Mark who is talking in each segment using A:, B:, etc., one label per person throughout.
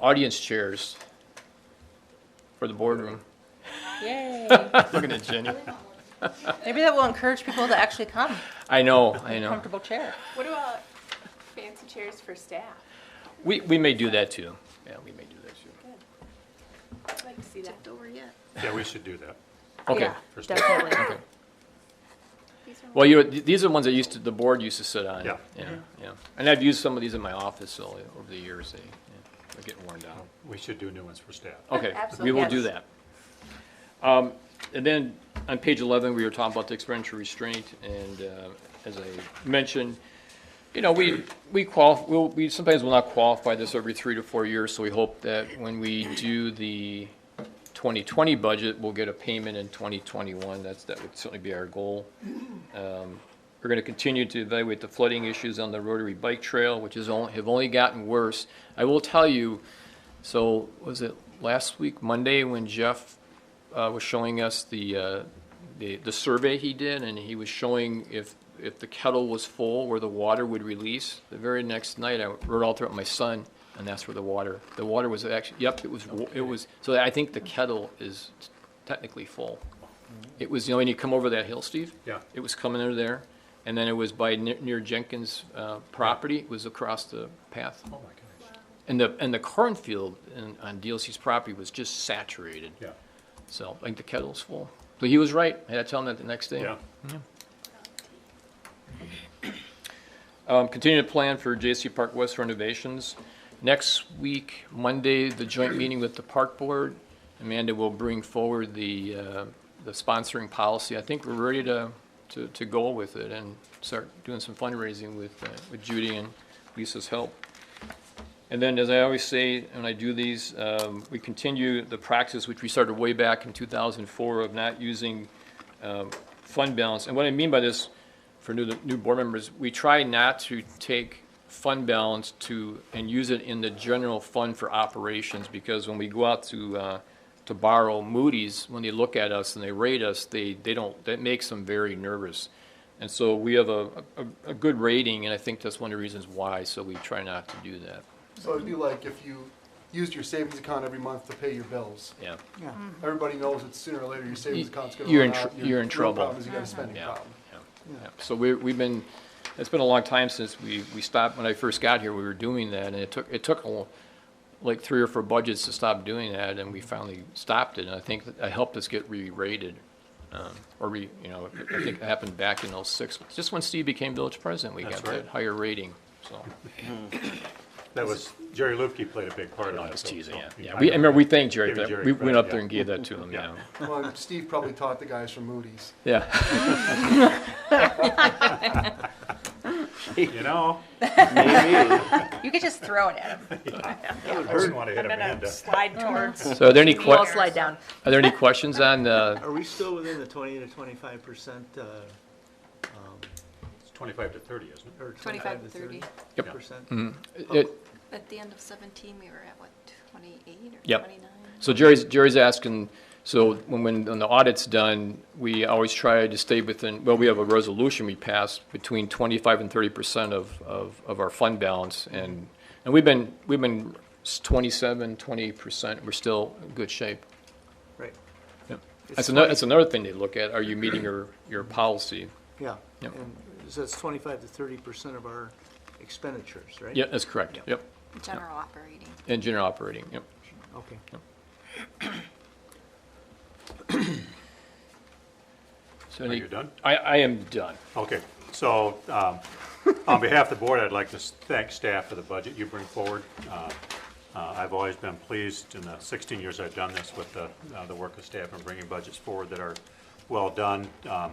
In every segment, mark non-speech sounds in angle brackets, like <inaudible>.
A: audience chairs for the boardroom.
B: Yay.
A: Looking at
B: <laughs>
A: Jenny.
B: Maybe that will encourage people to actually come.
A: I know, I know.
B: Comfortable chair.
C: What about fancy chairs for staff?
A: We, we may do that too. Yeah, we may do that too.
C: I'd like to see that. over yet.
D: Yeah, we should do that.
A: Okay.
B: Yeah, Definitely.
A: Well, you, these are ones that used to, the board used to sit on.
D: Yeah.
A: Yeah,
B: Mm-hmm.
A: yeah. And I've used some of these in my office so, over the years. They, yeah, they're getting worn down.
D: We should do new ones for staff.
A: Okay, we
C: Absolutely.
A: will do
B: Yes.
A: that. Um, And then on page 11, we were talking about the expenditure restraint, and uh, as I mentioned, you know, we, we qual, we'll- we sometimes will not qualify this every three to four years, so we hope that when we do the 2020 budget, we'll get a payment in 2021. That's, that would certainly be our goal. Um, We're going to continue to evaluate the flooding issues on the Rotary Bike Trail, which is, on- have only gotten worse. I will tell you, so was it last week, Monday, when Jeff uh, was showing us the, uh, the, the survey he did, and he was showing if, if the kettle was full, where the water would release? The very next night, I wrote all throughout my son, and that's where the water, the water was actually, yep, it was, it was, so I think the kettle is technically full. It was, you know, when you come over that hill, Steve?
D: Yeah.
A: It was coming under there, and then it was by ne- near Jenkins' uh, property, it was across the path.
D: Oh, my gosh.
A: And the, and the cornfield in- on DLC's property was just saturated.
D: Yeah,
A: So, I think the kettle's full. But he was right, I had to tell him that the next day.
D: yeah.
A: Um, continue to plan for J.C. Park West renovations. Next week, Monday, the joint meeting with the park board. Amanda will bring forward the, uh, the sponsoring policy. I think we're ready to, to, to go with it and start doing some fundraising with, uh, with Judy and Lisa's help. And then, as I always say when I do these, um, we continue the practice which we started way back in 2004 of not using um, fund balance. And what I mean by this, for new, new board members, we try not to take fund balance to, and use it in the general fund for operations, because when we go out to, uh, to borrow Moody's, when they look at us and they rate us, they, they don't, that makes them very nervous. And so we have a, a, a good rating, and I think that's one of the reasons why, so we try not to do that,
E: So it'd be like if you used your savings account every month to pay your bills. Mm-hmm.
A: yeah.
E: Everybody knows that sooner or later your savings
A: Y-
E: account's gonna
A: you're
E: run
A: in tr-
E: out. Your
A: you're in
E: real
A: trouble.
E: problem is you got a spending
A: Yeah,
E: problem.
A: yeah, yeah. So we, we've been, it's been a long time since we, we stopped, when I first got here, we were doing that, and it took, it took a lo- like three or four budgets to stop doing that, and we finally stopped it, and I think that that helped us get re-rated. um, Or re, you know, I think it happened back in oh-six, just when Steve became village president, we
D: That's
A: got that
D: right.
A: higher rating, so.
D: That was, Jerry Lupke played a big part in that.
A: I was
D: so-
A: teasing, yeah,
D: so-
A: yeah. We, I remember, we thanked Jerry,
D: Give
A: for that.
D: Jerry
A: we
D: credit,
A: went up
D: yeah.
A: there and gave that to him, yeah.
D: Yeah.
E: Well, and Steve probably taught the guys from Moody's.
A: Yeah.
D: You know,
B: You could just throw it at him.
D: I wouldn't want to hit
F: gonna
D: Amanda.
F: slide
B: Oh.
F: towards.
A: So are there any
B: We all
A: que,
B: slide down.
A: are there any questions on,
D: <laughs>
A: uh,
G: Are we still within the twenty to twenty-five percent, uh,
D: It's twenty-five to thirty, isn't it?
G: or
C: 25
G: twenty-five
C: to
G: to thirty
C: 30.
A: Yep.
G: percent?
A: it,
H: At the end of 17, we were at, what, 28 or
A: Yep.
H: 29?
A: So Jerry's, Jerry's asking, so when, when when the audit's done, we always try to stay within, well, we have a resolution we passed between twenty-five and thirty percent of, of, of our fund balance. And, and we've been, we've been s- 27, 20 percent, we're still in good shape.
G: Right,
A: Yep.
G: It's
A: That's another, that's another thing they look at, are you meeting your, your policy?
G: yeah.
A: Yep.
G: And so it's twenty-five to thirty percent of our expenditures, right?
A: Yeah, that's correct,
G: Yep.
A: yep.
H: General operating.
A: And general operating, yep.
G: Okay.
A: So
D: Are
A: any-
D: you done?
A: I, I am done.
D: Okay, so, um, on behalf of the board, I'd like to thank staff for the budget you bring forward. Uh, uh, I've always been pleased in the sixteen years I've done this with the, uh, the work of staff in bringing budgets forward that are well done. Um,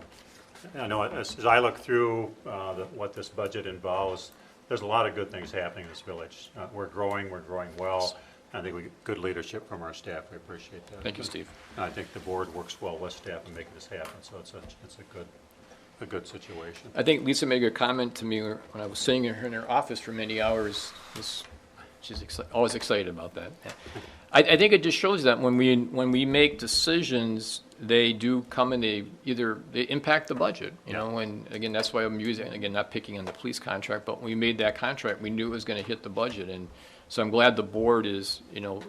D: I know, as, as I look through, uh, the- what this budget involves, there's a lot of good things happening in this village. Uh, we're growing, we're growing well. I think we, good leadership from our staff, we appreciate that.
A: Thank you, Steve.
D: And I think the board works well with staff in making this happen, so it's a, it's a good, a good situation.
A: I think Lisa made a comment to me when I was sitting in her, in her office for many hours. This, she's exci- always excited about that. I, I think it just shows that when we, when we make decisions, they do come and they either, they impact the budget, you know? And again, that's why I'm using, again, not picking on the police contract, but when we made that contract, we knew it was gonna hit the budget. And So I'm glad the board is, you know,